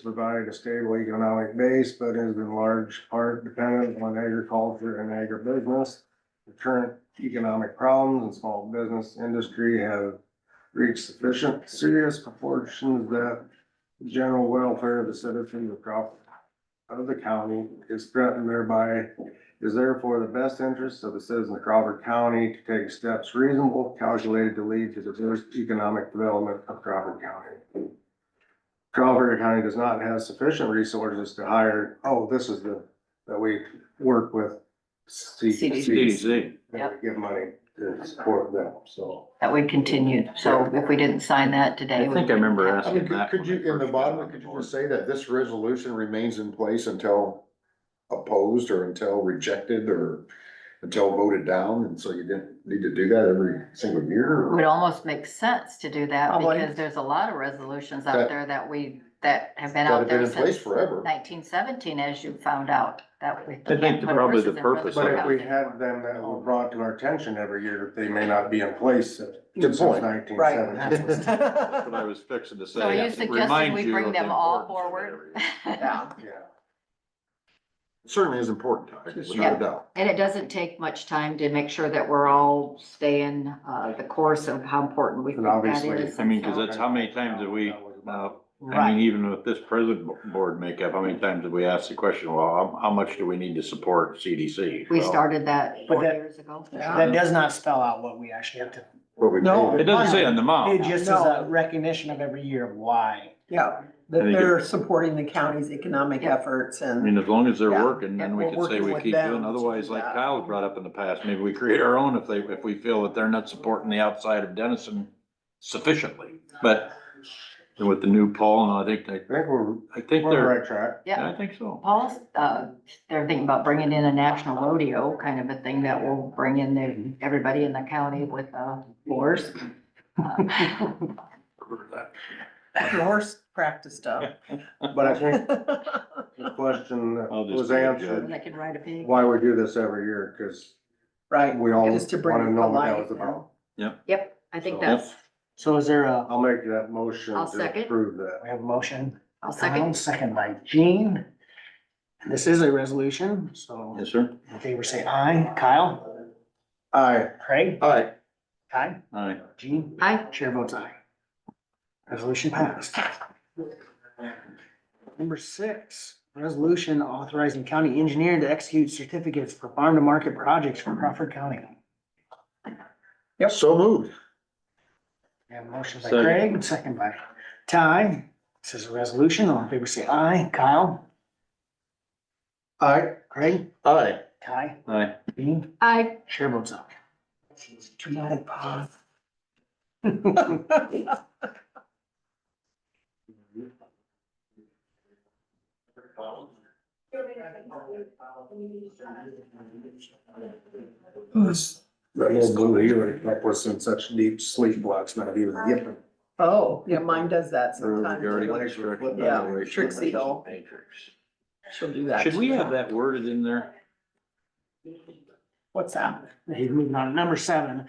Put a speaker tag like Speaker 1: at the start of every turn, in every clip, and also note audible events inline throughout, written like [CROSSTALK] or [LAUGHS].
Speaker 1: provide a stable economic base, but is in large part dependent on agriculture and agribusiness. The current economic problems and small business industry have reached sufficient serious proportions that the general welfare of the citizens of Crawford of the county is threatened thereby is therefore the best interest of the citizens of Crawford County to take steps reasonable, calculated to lead to the diverse economic development of Crawford County. Crawford County does not have sufficient resources to hire, oh, this is the, that we work with C-
Speaker 2: CDC.
Speaker 1: and we give money to support them, so.
Speaker 2: that we continued. So if we didn't sign that today.
Speaker 3: I
Speaker 2: we
Speaker 3: think I remember
Speaker 2: wouldn't have-
Speaker 3: asking that.
Speaker 4: Could you, in the bottom, could you just say that this resolution remains in place until opposed or until rejected or until voted down? And so you didn't need to do that every single year?
Speaker 2: It Would almost make sense to do that
Speaker 4: Probably.
Speaker 2: because there's a lot of resolutions
Speaker 4: That-
Speaker 2: out there that we, that have been
Speaker 4: That
Speaker 2: out
Speaker 4: had been
Speaker 2: there
Speaker 4: in place
Speaker 2: since
Speaker 4: forever.
Speaker 2: nineteen seventeen, as you found out, that we.
Speaker 3: I think the- probably the purpose
Speaker 1: But if we had them that were brought to our attention every year, they may not be in place
Speaker 4: Good
Speaker 1: since
Speaker 4: point.
Speaker 1: nineteen
Speaker 5: Right. [LAUGHS]
Speaker 1: seventy.
Speaker 3: That's what I was fixing to say.
Speaker 2: So are you suggesting
Speaker 3: Remind
Speaker 2: we
Speaker 3: you
Speaker 2: bring
Speaker 3: of
Speaker 2: them
Speaker 3: the
Speaker 2: all forward?
Speaker 3: importance of
Speaker 2: [LAUGHS]
Speaker 5: Yeah,
Speaker 1: [LAUGHS] Yeah.
Speaker 4: Certainly is important,
Speaker 2: Yeah.
Speaker 4: without a doubt.
Speaker 2: And it doesn't take much time to make sure that we're all staying, uh, the course of how important we think
Speaker 1: And
Speaker 2: that
Speaker 1: obviously-
Speaker 2: is.
Speaker 3: I mean, 'cause
Speaker 2: So-
Speaker 3: that's how many times have we, uh, I mean,
Speaker 2: Right,
Speaker 3: even with this present bo- board makeup, how many times have we asked the question, well, how, how much do we need to support CDC?
Speaker 2: we
Speaker 3: Well,
Speaker 2: started that
Speaker 5: But
Speaker 2: four
Speaker 5: that-
Speaker 2: years ago.
Speaker 5: that does not spell out what we actually have to,
Speaker 4: But we
Speaker 5: No,
Speaker 3: It
Speaker 4: paid it.
Speaker 3: doesn't say on the
Speaker 5: it
Speaker 3: amount.
Speaker 5: just is a recognition of every year of why.
Speaker 6: Yeah, that
Speaker 3: think it-
Speaker 6: they're supporting the county's economic
Speaker 2: Yeah.
Speaker 6: efforts
Speaker 3: I
Speaker 6: and,
Speaker 3: mean, as long as they're
Speaker 6: Yeah,
Speaker 3: working, then
Speaker 6: and
Speaker 3: we
Speaker 6: we're
Speaker 3: can say
Speaker 6: working
Speaker 3: we
Speaker 6: with
Speaker 3: keep
Speaker 6: them
Speaker 3: doing,
Speaker 6: to
Speaker 3: otherwise
Speaker 6: do
Speaker 3: like
Speaker 6: that.
Speaker 3: Kyle's brought up in the past, maybe we create our own if they, if we feel that they're not supporting the outside of Denison sufficiently. But with the new poll, and I think,
Speaker 1: I
Speaker 3: they-
Speaker 1: think we're, we're
Speaker 3: I think
Speaker 1: on the
Speaker 3: they're,
Speaker 1: right track.
Speaker 3: I
Speaker 2: Yeah,
Speaker 3: think so.
Speaker 2: Paul's, uh, they're thinking about bringing in a national rodeo, kind of a thing that will bring in the, everybody in the county with, uh, horse. Uh,
Speaker 6: horse practice stuff.
Speaker 1: But I
Speaker 6: [LAUGHS]
Speaker 1: think the question that
Speaker 3: I'll just
Speaker 1: was
Speaker 3: be a
Speaker 1: answered,
Speaker 2: They can ride a pig.
Speaker 1: why we do this every year, cause
Speaker 6: Right.
Speaker 1: we all
Speaker 6: It is to bring
Speaker 1: wanna
Speaker 6: it
Speaker 1: know
Speaker 6: to
Speaker 1: what that
Speaker 6: light,
Speaker 1: was about.
Speaker 2: Yep, I think
Speaker 1: So-
Speaker 2: that's,
Speaker 5: So is there a,
Speaker 1: I'll make that motion
Speaker 2: I'll
Speaker 1: to
Speaker 2: second.
Speaker 1: approve that.
Speaker 5: we have a motion?
Speaker 2: I'll
Speaker 5: Kyle,
Speaker 2: second.
Speaker 5: Second by Jean. And This is a resolution, so
Speaker 3: Yes, sir?
Speaker 5: in favor say aye. Kyle?
Speaker 1: Aye,
Speaker 5: Craig?
Speaker 4: All right,
Speaker 5: Ty?
Speaker 3: All right.
Speaker 5: Jean?
Speaker 2: Aye.
Speaker 5: Chair votes aye. Resolution passed. Number six, resolution authorizing county engineer to execute certificates for farm-to-market projects for Crawford County.
Speaker 4: so moved.
Speaker 5: We have a motion by
Speaker 3: Second.
Speaker 5: Craig, second by Ty. This is a resolution. All in favor say aye. Kyle?
Speaker 1: aye,
Speaker 5: Craig?
Speaker 4: All right,
Speaker 5: Ty?
Speaker 3: Aye.
Speaker 5: Dean?
Speaker 2: I,
Speaker 5: Chair votes aye. Dramatic pause.
Speaker 6: [LAUGHS]
Speaker 1: This, that little blue here, that was in such deep sleep blocks, not even yipping.
Speaker 6: Oh, yeah, mine does that sometimes.
Speaker 3: Yeah,
Speaker 6: Trixie doll. She'll do that.
Speaker 3: Should we have that worded in there?
Speaker 6: What's that?
Speaker 5: He's moving on. Number seven,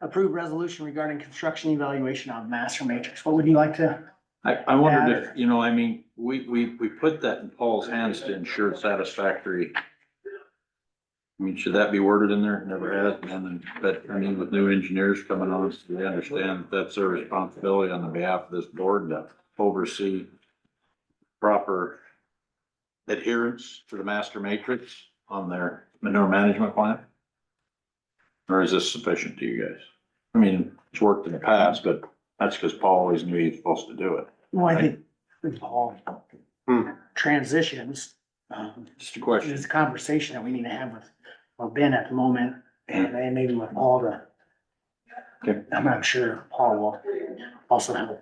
Speaker 5: approve resolution regarding construction evaluation on master matrix. What would you like to?
Speaker 3: I, I wondered if, you know, I mean, we, we, we put that in Paul's hands to ensure satisfactory. I mean, should that be worded in there? It Never has, and then, but I mean, with new engineers coming on, so they understand that's their responsibility on the behalf of this board to oversee proper adherence to the master matrix on their manure management plan? Or is this sufficient to you guys? I mean, it's worked in the past, but that's because Paul always knew he was supposed to do it.
Speaker 5: Well, I think Paul
Speaker 1: Hmm.
Speaker 5: transitions. um,
Speaker 3: Just a question.
Speaker 5: It's a conversation that we need to have with, well, Ben at the moment, and then maybe with Paul to.
Speaker 3: Okay.
Speaker 5: I'm not sure Paul will also have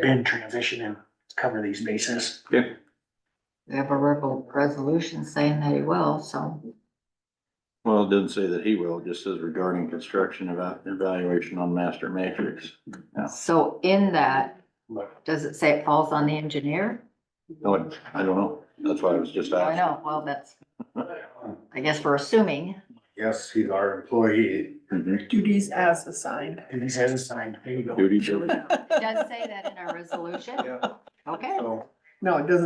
Speaker 5: Ben transition and cover these bases.
Speaker 2: we have a rebel resolution saying that he will, so.
Speaker 3: Well, it doesn't say that he will, it just says regarding construction eva- evaluation on master matrix.
Speaker 2: So in that,
Speaker 3: But-
Speaker 2: does it say it falls on the engineer?
Speaker 3: No, it- Oh, I don't know. That's why I was just
Speaker 2: I
Speaker 3: asking.
Speaker 2: know, well, that's, I guess we're assuming.
Speaker 1: Yes, he's our employee.
Speaker 3: Mhm.
Speaker 6: Duties as assigned.
Speaker 5: And he says it's signed, there you go.
Speaker 3: Duty, diligence.
Speaker 2: It does say that in our resolution.
Speaker 1: [LAUGHS] Yeah.
Speaker 2: Okay.
Speaker 1: So.
Speaker 6: No, it doesn't